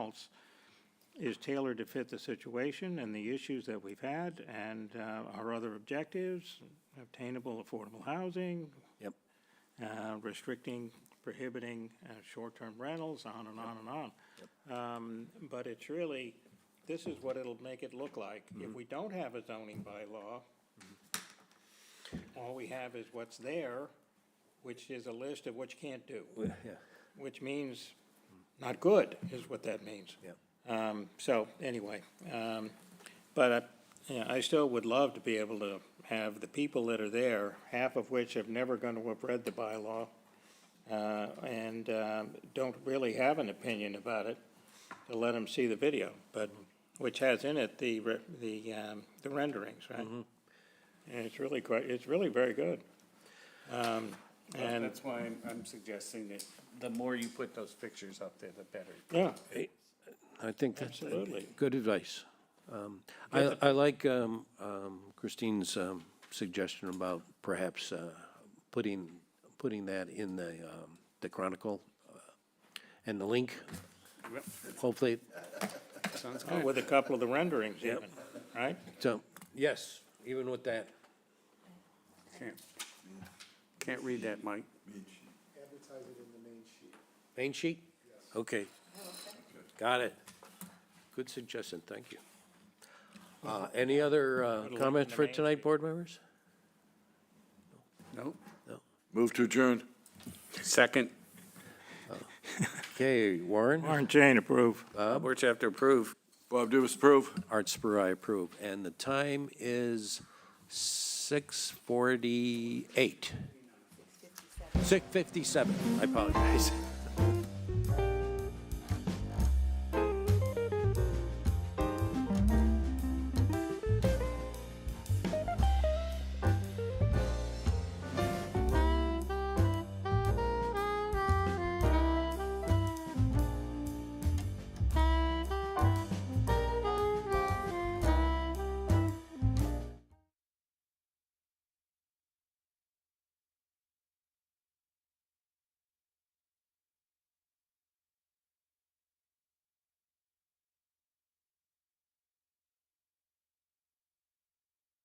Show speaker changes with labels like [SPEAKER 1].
[SPEAKER 1] else is tailored to fit the situation and the issues that we've had and uh, our other objectives, obtainable affordable housing,
[SPEAKER 2] Yep.
[SPEAKER 1] uh, restricting, prohibiting uh, short-term rentals, on and on and on. Um, But it's really, this is what it'll make it look like. If we don't have a zoning bylaw, all we have is what's there, which is a list of what you can't do,
[SPEAKER 2] Yeah,
[SPEAKER 1] which means not good, is what that means.
[SPEAKER 2] yeah.
[SPEAKER 1] Um, so, anyway, um, but I, yeah, I still would love to be able to have the people that are there, half of which have never gonna have read the bylaw, uh, and, um, don't really have an opinion about it, to let them see the video, but, which has in it the, re- the, um, the renderings, right? And it's really quite, it's really very good. Um, and,
[SPEAKER 3] That's why I'm, I'm suggesting that the more you put those pictures up there, the better.
[SPEAKER 1] yeah,
[SPEAKER 2] I think that's.
[SPEAKER 1] Absolutely.
[SPEAKER 2] Good advice. Um, I, I like um, um, Christine's um, suggestion about perhaps uh, putting, putting that in the, um, the Chronicle uh, and the link.
[SPEAKER 3] Yep.
[SPEAKER 2] Hopefully,
[SPEAKER 3] Sounds
[SPEAKER 1] oh,
[SPEAKER 3] good.
[SPEAKER 1] with a couple of the renderings even, right?
[SPEAKER 2] so, yes, even with that.
[SPEAKER 3] Can't- Can't read that, Mike.
[SPEAKER 4] advertise it in the main sheet.
[SPEAKER 2] Main sheet? Okay. Got it. Good suggestion, thank you. Uh, Any other uh,
[SPEAKER 1] in
[SPEAKER 2] comments
[SPEAKER 1] the
[SPEAKER 2] for
[SPEAKER 1] main
[SPEAKER 2] tonight, board members?
[SPEAKER 3] Nope.
[SPEAKER 5] Move to adjourn.
[SPEAKER 3] Second,
[SPEAKER 2] Okay, Warren,
[SPEAKER 1] Warren Chain approve.
[SPEAKER 3] we're chapter approved.
[SPEAKER 5] Bob Dumas, approve.
[SPEAKER 2] Art Spur, I approve. And the time is 6:48. 6:57, I apologize.